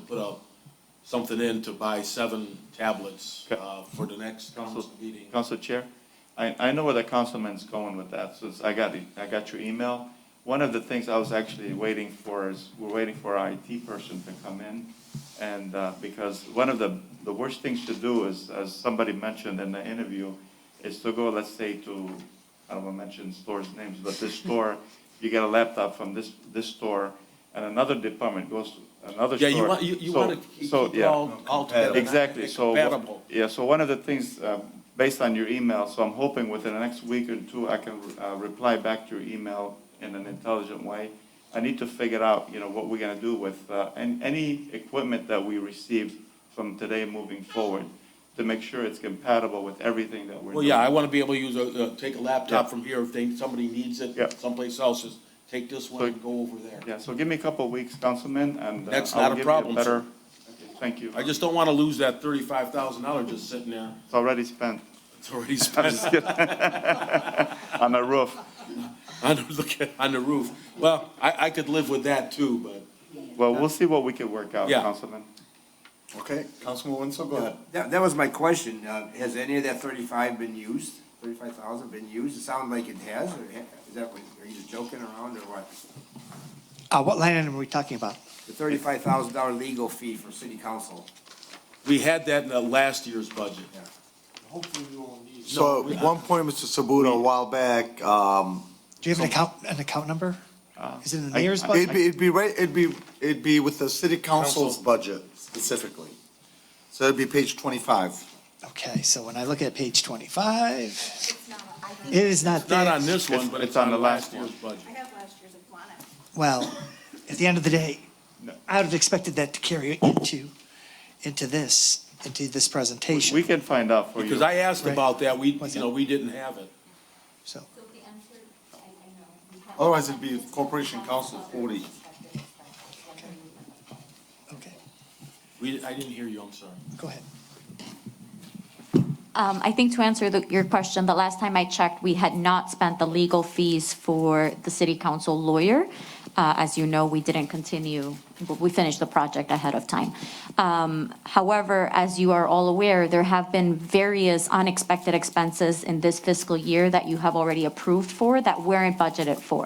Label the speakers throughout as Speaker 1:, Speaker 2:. Speaker 1: put a, something in to buy seven tablets,
Speaker 2: Okay.
Speaker 1: uh, for the next council meeting.
Speaker 2: Council Chair, I, I know where the councilman's going with that, since I got, the- I got your email. One of the things I was actually waiting for is, we're waiting for our IT person to come in. And, uh, because one of the, the worst things to do is, as somebody mentioned in the interview, is to go, let's say, to, I don't wanna mention stores' names, but this store, you get a laptop from this, this store, and another department goes to another
Speaker 1: Yeah,
Speaker 2: store.
Speaker 1: you want, you, you
Speaker 2: So-
Speaker 1: wanna keep
Speaker 2: so,
Speaker 1: it
Speaker 2: yeah.
Speaker 1: all, all together. not
Speaker 2: Exactly, so,
Speaker 1: Compatible.
Speaker 2: yeah, so one of the things, um, based on your email, so I'm hoping within the next week or two, I can uh, reply back to your email in an intelligent way. I need to figure out, you know, what we're gonna do with, uh, an any equipment that we receive from today moving forward, to make sure it's compatible with everything that we're doing.
Speaker 1: Well, yeah, I wanna be able to use a, uh, take a laptop
Speaker 2: Yeah.
Speaker 1: from here if they, somebody needs
Speaker 2: Yeah.
Speaker 1: it someplace else, just take this one
Speaker 2: So-
Speaker 1: and go over there.
Speaker 2: Yeah, so give me a couple of weeks, Councilman, and uh,
Speaker 1: That's
Speaker 2: I'll
Speaker 1: not a
Speaker 2: give you a
Speaker 1: problem, sir.
Speaker 2: better. Okay, Thank you,
Speaker 1: I just don't wanna lose that thirty-five thousand dollar just sitting there,
Speaker 2: it's already spent
Speaker 1: it's already spent.
Speaker 2: on the roof.
Speaker 1: on the, look at- on the roof. Well, I, I could live with that too, but
Speaker 2: Well, we'll see what we can work out,
Speaker 1: Yeah.
Speaker 2: Councilman.
Speaker 3: Okay, Councilman Wenzel, go ahead.
Speaker 4: That, that was my question. Uh, has any of that thirty-five been used? Thirty-five thousand been used? It sounded like it has, or ha- is that, what- are you just joking around or what?
Speaker 5: Uh, what line item are we talking about?
Speaker 4: The thirty-five thousand dollar legal fee for city council.
Speaker 1: we had that in the last year's budget.
Speaker 3: So at one point, Mr. Sabuda, a while back, um,
Speaker 5: Do you have an account, an account number? Is it in the
Speaker 2: Uh, I-
Speaker 5: mayor's
Speaker 2: I-
Speaker 5: budget?
Speaker 3: it'd be, it'd be right, it'd be, it'd be with the city council's budget specifically. So it'd be page twenty-five.
Speaker 5: Okay, so when I look at page twenty-five,
Speaker 6: It's not, I
Speaker 5: it
Speaker 6: think,
Speaker 5: is
Speaker 1: Not
Speaker 5: not there.
Speaker 1: on this one, but
Speaker 2: It's
Speaker 1: it's on
Speaker 2: on
Speaker 1: the
Speaker 2: the
Speaker 1: last
Speaker 2: last
Speaker 1: year's budget.
Speaker 6: I have last year's, if you want it.
Speaker 5: Well, at the end of the day,
Speaker 2: No.
Speaker 5: I would have expected that to carry into, into this, into this
Speaker 2: We
Speaker 5: presentation.
Speaker 2: can find out for you.
Speaker 1: Because I asked
Speaker 5: Right.
Speaker 1: about that, we,
Speaker 5: What's
Speaker 1: you know,
Speaker 5: that?
Speaker 1: we didn't have it.
Speaker 5: So,
Speaker 6: So the answer, I, I know. we have-
Speaker 3: Otherwise, it'd be corporation council forty.
Speaker 5: okay,
Speaker 1: We, I didn't hear you, I'm sorry.
Speaker 5: go ahead.
Speaker 7: Um, I think to answer the- your question, the last time I checked, we had not spent the legal fees for the city council lawyer. Uh, As you know, we didn't continue, we finished the project ahead of time. Um, However, as you are all aware, there have been various unexpected expenses in this fiscal year that you have already approved for that weren't budgeted for.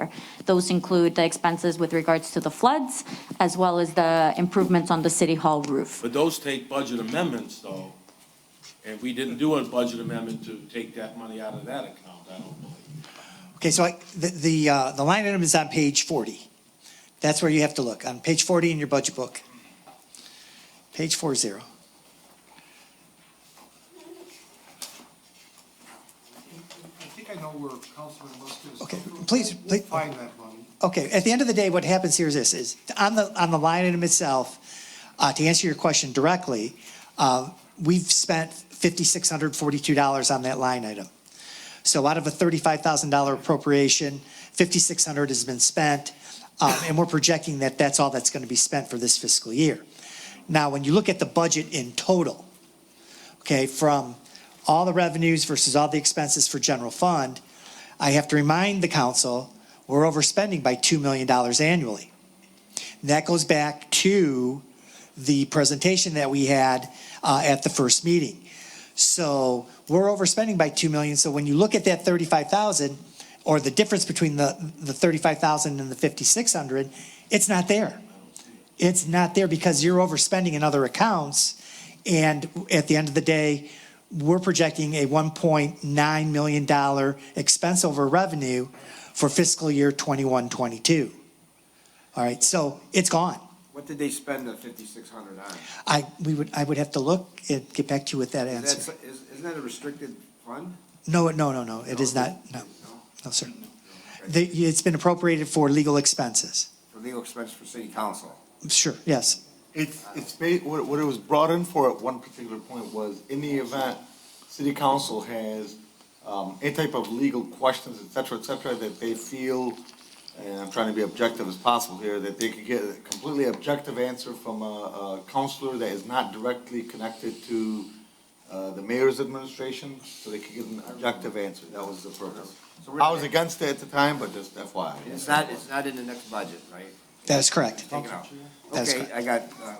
Speaker 7: Those include the expenses with regards to the floods, as well as the improvements on the city hall roof.
Speaker 1: But those take budget amendments though, and we didn't do a budget amendment to take that money out of that account, I don't believe.
Speaker 5: Okay, so I, the, the, uh, the line item is on page forty. That's where you have to look, on page forty in your budget book. Page four zero.
Speaker 8: I think I know where Councilman Musk is.
Speaker 5: Okay, please,
Speaker 8: We'll
Speaker 5: please-
Speaker 8: Find that money.
Speaker 5: Okay, at the end of the day, what happens here is this, is on the, on the line item itself, uh, to answer your question directly, uh, we've spent fifty-six hundred forty-two dollars on that line item. So out of a thirty-five thousand dollar appropriation, fifty-six hundred has been spent, um, and we're projecting that that's all that's gonna be spent for this fiscal year. Now, when you look at the budget in total, okay, from all the revenues versus all the expenses for general fund, I have to remind the council we're overspending by $2 million annually. And that goes back to the presentation that we had uh, at the first meeting. So we're overspending by 2 million, so when you look at that 35,000, or the difference between the, the 35,000 and the 5,600, it's not there. It's not there because you're overspending in other accounts, and at the end of the day, we're projecting a $1.9 million expense over revenue for fiscal year 21, 22. All right, so it's gone.
Speaker 4: What did they spend the fifty-six hundred on?
Speaker 5: I, we would, I would have to look and get back to you with that
Speaker 4: That's,
Speaker 5: answer.
Speaker 4: is, isn't that a restricted fund?
Speaker 5: No, no, no, no, it is not, no,
Speaker 4: No,
Speaker 5: no, sir. The, it's been appropriated for legal expenses.
Speaker 4: for legal expense for city council.
Speaker 5: Sure, yes.
Speaker 3: It's, it's, ba- what, what it was brought in for at one particular point was, in the event, city council has, um, any type of legal questions, et cetera, et cetera, that they feel, and I'm trying to be objective as possible here, that they could get a completely objective answer from a, a counselor that is not directly connected to, uh, the mayor's administration, so they could get an objective answer, that was the purpose.
Speaker 4: So we're-
Speaker 3: I was against it at the time, but just FYI.
Speaker 4: It's not, it's not in the next budget, right?
Speaker 5: That is correct.
Speaker 4: Take it out.
Speaker 5: That's
Speaker 4: Okay,
Speaker 5: correct.
Speaker 4: I got, uh,